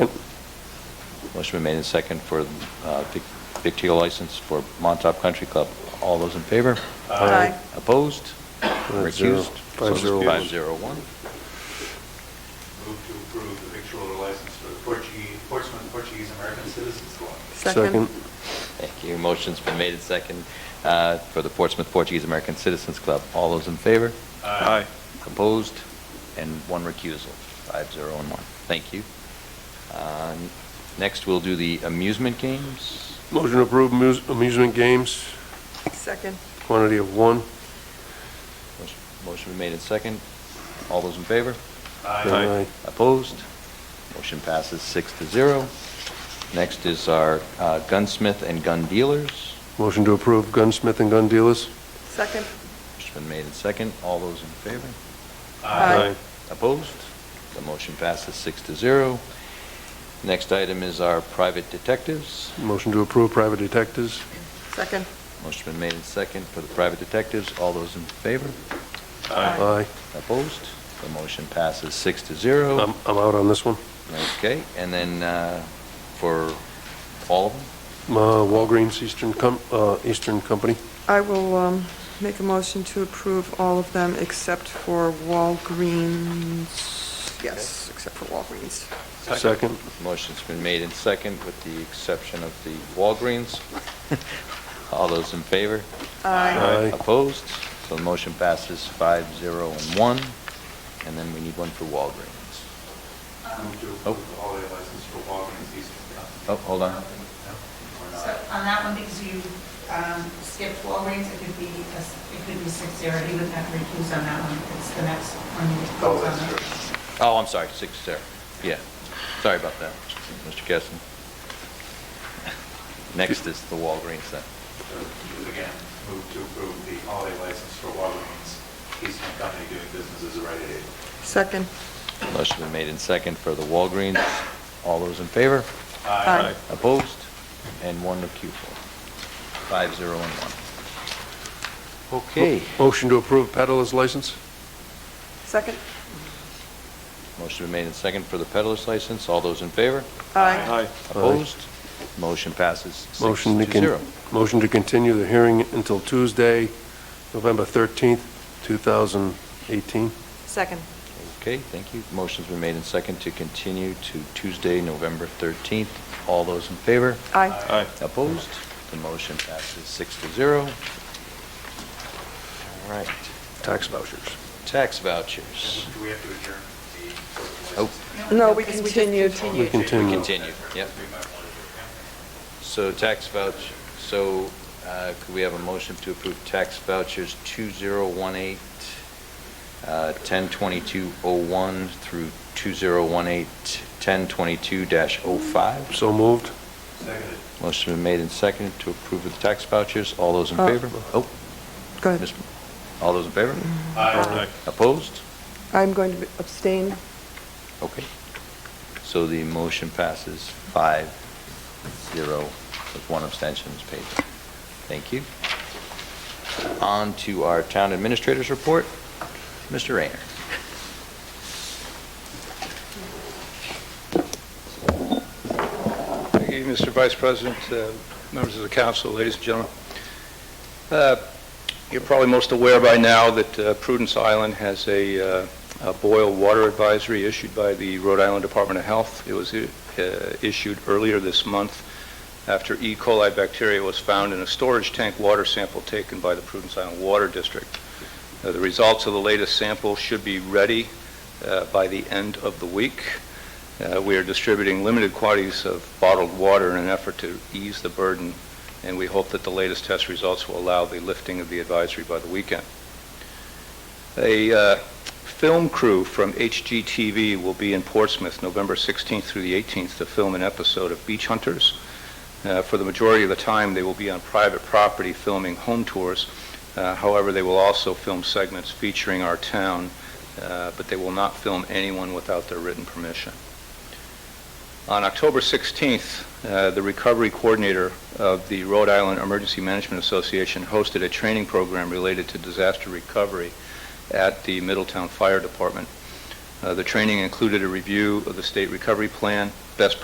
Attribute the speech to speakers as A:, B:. A: Motion been made and second for uh, Vic Vic Teal license for Montauk Country Club. All those in favor?
B: Aye.
A: Opposed?
C: Five zero.
A: Recused?
C: Five zero one.
A: Five zero one.
D: Move to approve the victualler license for the Portuguese, Portsmouth Portuguese American Citizens Club.
B: Second.
A: Thank you. Motion's been made and second uh, for the Portsmouth Portuguese American Citizens Club. All those in favor?
D: Aye.
A: Opposed? And one recusal, five zero and one. Thank you. Uh, Next, we'll do the amusement games.
C: Motion to approve amuse- amusement games,
B: Second.
C: quantity of one.
A: Motion- Motion been made and second. All those in favor?
C: Aye.
A: Opposed? Motion passes six to zero. Next is our uh, gunsmith and gun dealers.
C: Motion to approve gunsmith and gun dealers.
B: Second.
A: Motion's been made and second. All those in favor?
B: Aye.
A: Opposed? The motion passes six to zero. Next item is our private detectives.
C: Motion to approve private detectives.
B: Second.
A: Motion been made and second for the private detectives. All those in favor?
C: Aye.
A: Opposed? The motion passes six to zero.
C: I'm, I'm out on this one.
A: Okay, and then uh, for all of them?
C: Uh, Walgreens Eastern Com, uh, Eastern Company.
B: I will um, make a motion to approve all of them except for Walgreens. Yes, except for Walgreens.
C: Second.
A: Motion's been made in second with the exception of the Walgreens. All those in favor?
C: Aye.
A: Opposed? So the motion passes five, zero, and one. And then we need one for Walgreens.
D: Move to
A: Oh.
D: approve the holiday license for Walgreens Eastern Club.
A: Oh, hold on.
D: Or
E: So
D: not.
E: on that one, because you um, skipped Walgreens, it could be, a s- it could be six zero, he would have to recuse on that one, it's the next one you
D: Oh,
E: vote on.
D: that's true.
A: Oh, I'm sorry, six, zero. Yeah, sorry about that, Mr. Kessin. Next is the Walgreens then.
D: So, Again, move to approve the holiday license for Walgreens Eastern Company doing business as a Rite Aid.
B: Second.
A: Motion been made in second for the Walgreens. All those in favor?
B: Aye.
A: Opposed? And one recusal. Five, zero, and one. Okay.
C: Motion to approve peddler's license.
B: Second.
A: Motion been made in second for the peddler's license. All those in favor?
B: Aye.
A: Opposed? Motion passes six
C: Motion to
A: to
C: con,
A: zero.
C: motion to continue the hearing until Tuesday, November 13th, 2018.
B: Second.
A: Okay, thank you. Motion's been made in second to continue to Tuesday, November 13th. All those in favor?
B: Aye.
D: Aye.
A: Opposed? The motion passes six to zero. All right,
C: Tax vouchers.
A: tax vouchers.
D: Do we have to adjourn the?
A: Oh,
B: No, we
E: just
B: continued.
C: We continue.
A: continue, yep. So tax vouch, so uh, could we have a motion to approve tax vouchers 2018, uh, 102201 through 2018, 1022-05?
C: So moved.
D: Seconded.
A: Motion been made and seconded to approve of the tax vouchers. All those in
B: Uh,
A: favor? Oh,
B: Go ahead.
A: Miss- all those in favor?
D: Aye.
A: Opposed?
B: I'm going to abstain.
A: Okay. So the motion passes five, zero, with one abstention is paid. Thank you. On to our town administrator's report, Mr. Rayner.
F: Thank you, Mr. Vice President, uh, members of the council, ladies and gentlemen. Uh, You're probably most aware by now that uh, Prudence Island has a uh, a boil water advisory issued by the Rhode Island Department of Health. It was uh, issued earlier this month after E. coli bacteria was found in a storage tank water sample taken by the Prudence Island Water District. Uh, The results of the latest sample should be ready uh, by the end of the week. Uh, We are distributing limited quantities of bottled water in an effort to ease the burden, and we hope that the latest test results will allow the lifting of the advisory by the weekend. A uh, film crew from HGTV will be in Portsmouth November 16th through the 18th to film an episode of Beach Hunters. Uh, For the majority of the time, they will be on private property filming home tours. Uh, However, they will also film segments featuring our town, uh, but they will not film anyone without their written permission. On October 16th, uh, the recovery coordinator of the Rhode Island Emergency Management Association hosted a training program related to disaster recovery at the Middletown Fire Department. Uh, The training included a review of the state recovery plan, best